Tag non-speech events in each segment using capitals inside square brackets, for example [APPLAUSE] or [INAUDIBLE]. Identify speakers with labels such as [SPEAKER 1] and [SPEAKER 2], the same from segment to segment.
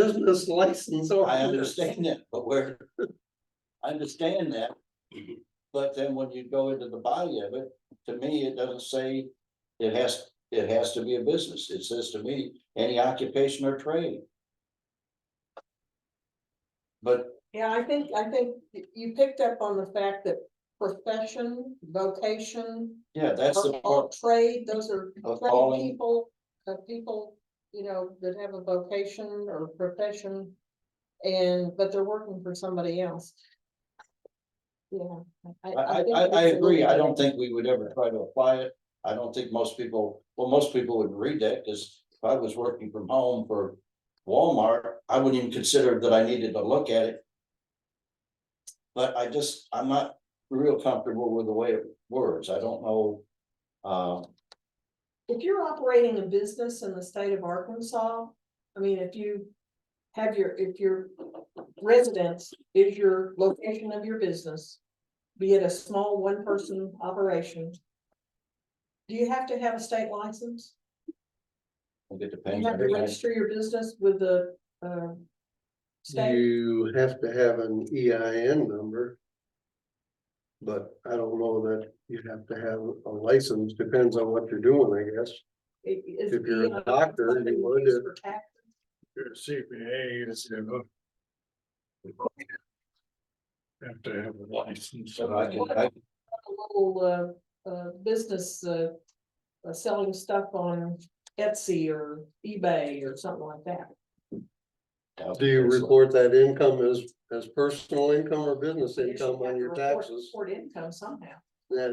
[SPEAKER 1] business license or.
[SPEAKER 2] I understand that, but we're. I understand that. But then when you go into the body of it, to me, it doesn't say it has, it has to be a business. It says to me, any occupation or trade. But
[SPEAKER 3] Yeah, I think, I think you picked up on the fact that profession, vocation,
[SPEAKER 2] yeah, that's the
[SPEAKER 3] or- or
[SPEAKER 2] part.
[SPEAKER 3] trade, those are
[SPEAKER 2] Of
[SPEAKER 3] trade
[SPEAKER 2] calling.
[SPEAKER 3] people, uh, people, you know, that have a vocation or profession. And, but they're working for somebody else. Yeah.
[SPEAKER 2] I, I,
[SPEAKER 3] think
[SPEAKER 2] I, I
[SPEAKER 3] it's a
[SPEAKER 2] agree. I
[SPEAKER 3] little
[SPEAKER 2] don't
[SPEAKER 3] bit-
[SPEAKER 2] think we would ever try to apply it. I don't think most people, well, most people would read that, cause if I was working from home for Walmart, I wouldn't even consider that I needed to look at it. But I just, I'm not real comfortable with the way it words. I don't know. Um,
[SPEAKER 3] If you're operating a business in the state of Arkansas, I mean, if you have your, if your residence is your location of your business, be it a small one-person operation, do you have to have a state license?
[SPEAKER 2] it
[SPEAKER 3] You
[SPEAKER 2] depends.
[SPEAKER 3] have to register your business with the, uh, state,
[SPEAKER 1] You have to have an EIN number. But I don't know that you have to have a license, depends on what you're doing, I guess.
[SPEAKER 3] It- it's
[SPEAKER 1] if you're a
[SPEAKER 3] the, uh,
[SPEAKER 1] doctor, you
[SPEAKER 3] something
[SPEAKER 1] would
[SPEAKER 3] used
[SPEAKER 1] if-
[SPEAKER 3] for tax.
[SPEAKER 4] Your CPA is, you know. Have to have a license.
[SPEAKER 2] So I can, I,
[SPEAKER 3] a little uh uh business uh. uh, Selling stuff on Etsy or eBay or something like that.
[SPEAKER 1] Do you report that income as, as personal income or business
[SPEAKER 3] You should
[SPEAKER 1] income
[SPEAKER 3] have
[SPEAKER 1] on
[SPEAKER 3] to
[SPEAKER 1] your
[SPEAKER 3] report-
[SPEAKER 1] taxes?
[SPEAKER 3] Report income somehow.
[SPEAKER 1] Yeah,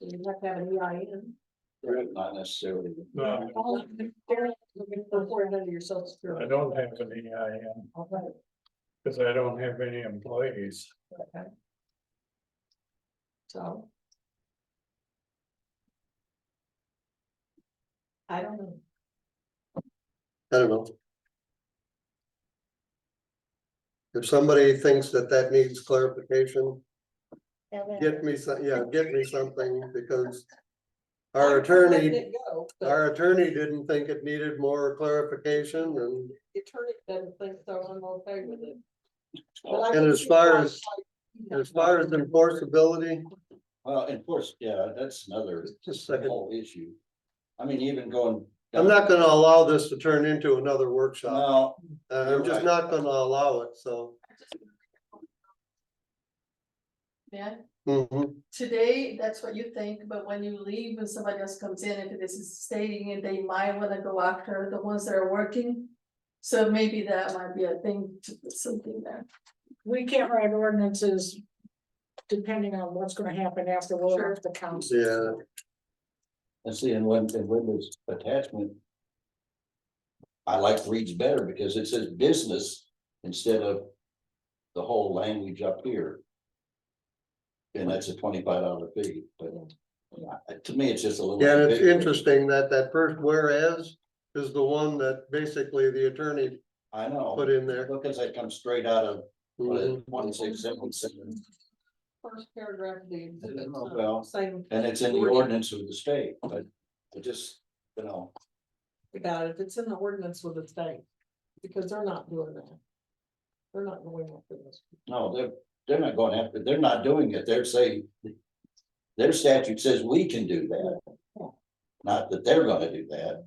[SPEAKER 3] You have to have an E EIN.
[SPEAKER 2] not necessarily.
[SPEAKER 4] No,
[SPEAKER 3] All of them, they're looking for Report under your social
[SPEAKER 4] Uh, I
[SPEAKER 3] security.
[SPEAKER 4] don't have an EIN,
[SPEAKER 3] All right,
[SPEAKER 4] because I don't have any employees.
[SPEAKER 3] okay. So. I don't know.
[SPEAKER 1] I don't know. If somebody thinks that that needs clarification, get me some, yeah, get me something because our
[SPEAKER 3] I'm letting
[SPEAKER 1] attorney
[SPEAKER 3] it go, but
[SPEAKER 1] Our attorney didn't think it needed more clarification and,
[SPEAKER 3] the Attorney doesn't think so, I'm okay with it. But
[SPEAKER 2] Well,
[SPEAKER 3] I
[SPEAKER 1] And
[SPEAKER 3] think
[SPEAKER 1] as
[SPEAKER 3] you're
[SPEAKER 1] far
[SPEAKER 3] right,
[SPEAKER 1] as-
[SPEAKER 3] like, you know,
[SPEAKER 1] as far as enforceability,
[SPEAKER 2] of course, yeah, that's another
[SPEAKER 1] just a second.
[SPEAKER 2] whole issue. I mean, even going.
[SPEAKER 1] I'm not gonna allow this to turn into another workshop.
[SPEAKER 2] No,
[SPEAKER 1] Uh, I'm just not gonna allow it, so.
[SPEAKER 5] Yeah,
[SPEAKER 1] mhm.
[SPEAKER 5] today, that's what you think, but when you leave and somebody else comes in, if this is staying and they might wanna go after the ones that are working. So maybe that might be a thing to put something there.
[SPEAKER 6] we can't write ordinances depending on what's gonna happen after we're
[SPEAKER 5] Sure.
[SPEAKER 6] off the council.
[SPEAKER 1] Yeah,
[SPEAKER 2] And see, and when, and when this attachment. I like reads better because it says business instead of the whole language up here. And that's a twenty-five dollar fee, but uh, to me, it's just a little.
[SPEAKER 1] yeah, and it's
[SPEAKER 2] ambiguous.
[SPEAKER 1] interesting that that first whereas is the one that basically the attorney
[SPEAKER 2] I know.
[SPEAKER 1] put in there.
[SPEAKER 2] Because that comes straight out of what is
[SPEAKER 1] Mhm.
[SPEAKER 2] it, twenty-six, seven,
[SPEAKER 3] First paragraph of the exhibit,
[SPEAKER 2] Oh,
[SPEAKER 3] so
[SPEAKER 2] well.
[SPEAKER 3] same
[SPEAKER 2] and it's in the
[SPEAKER 3] Wording.
[SPEAKER 2] ordinance of the state, but I just, you know,
[SPEAKER 3] about it, it's in the ordinance with the state, because they're not doing that. They're not going after this.
[SPEAKER 2] no, they're, they're not going after, they're not doing it, they're saying. Their statute says we can do that. Not that they're gonna do that.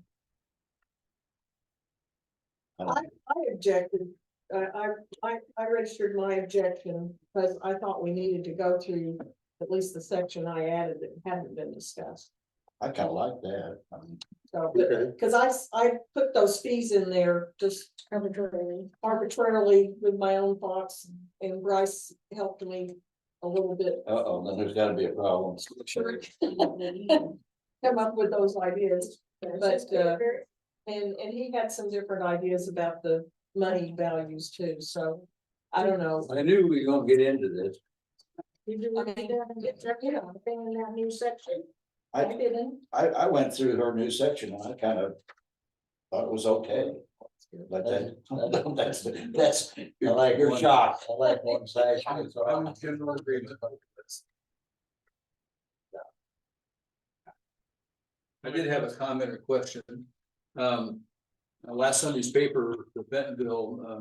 [SPEAKER 2] I don't-
[SPEAKER 3] I objected, I, I, I, I registered my objection, because I thought we needed to go through at least the section I added that hadn't been discussed.
[SPEAKER 2] I kinda like that, I mean,
[SPEAKER 3] So,
[SPEAKER 1] Okay,
[SPEAKER 3] because I, s- I put those fees in there just
[SPEAKER 6] Arbitrarily.
[SPEAKER 3] arbitrarily with my own thoughts, and Bryce helped me a little bit.
[SPEAKER 2] uh-oh, then there's gotta be a problem.
[SPEAKER 3] Sure. Come up with those ideas, but, uh, and, and he had some different ideas about the money values too, so I don't know.
[SPEAKER 2] I knew we were gonna get into this.
[SPEAKER 6] You do
[SPEAKER 3] I
[SPEAKER 6] what
[SPEAKER 3] mean,
[SPEAKER 6] you gotta get that, you know, thing in that new section.
[SPEAKER 3] I
[SPEAKER 2] I,
[SPEAKER 3] didn't.
[SPEAKER 2] I, I went through her new section and I kind of thought it was okay, but that, [LAUGHS] that's, that's, you're like, you're shocked. I like one section, so I'm general agreement.
[SPEAKER 7] I did have a comment or question. Um, uh, last Sunday's paper, the Bentonville, uh,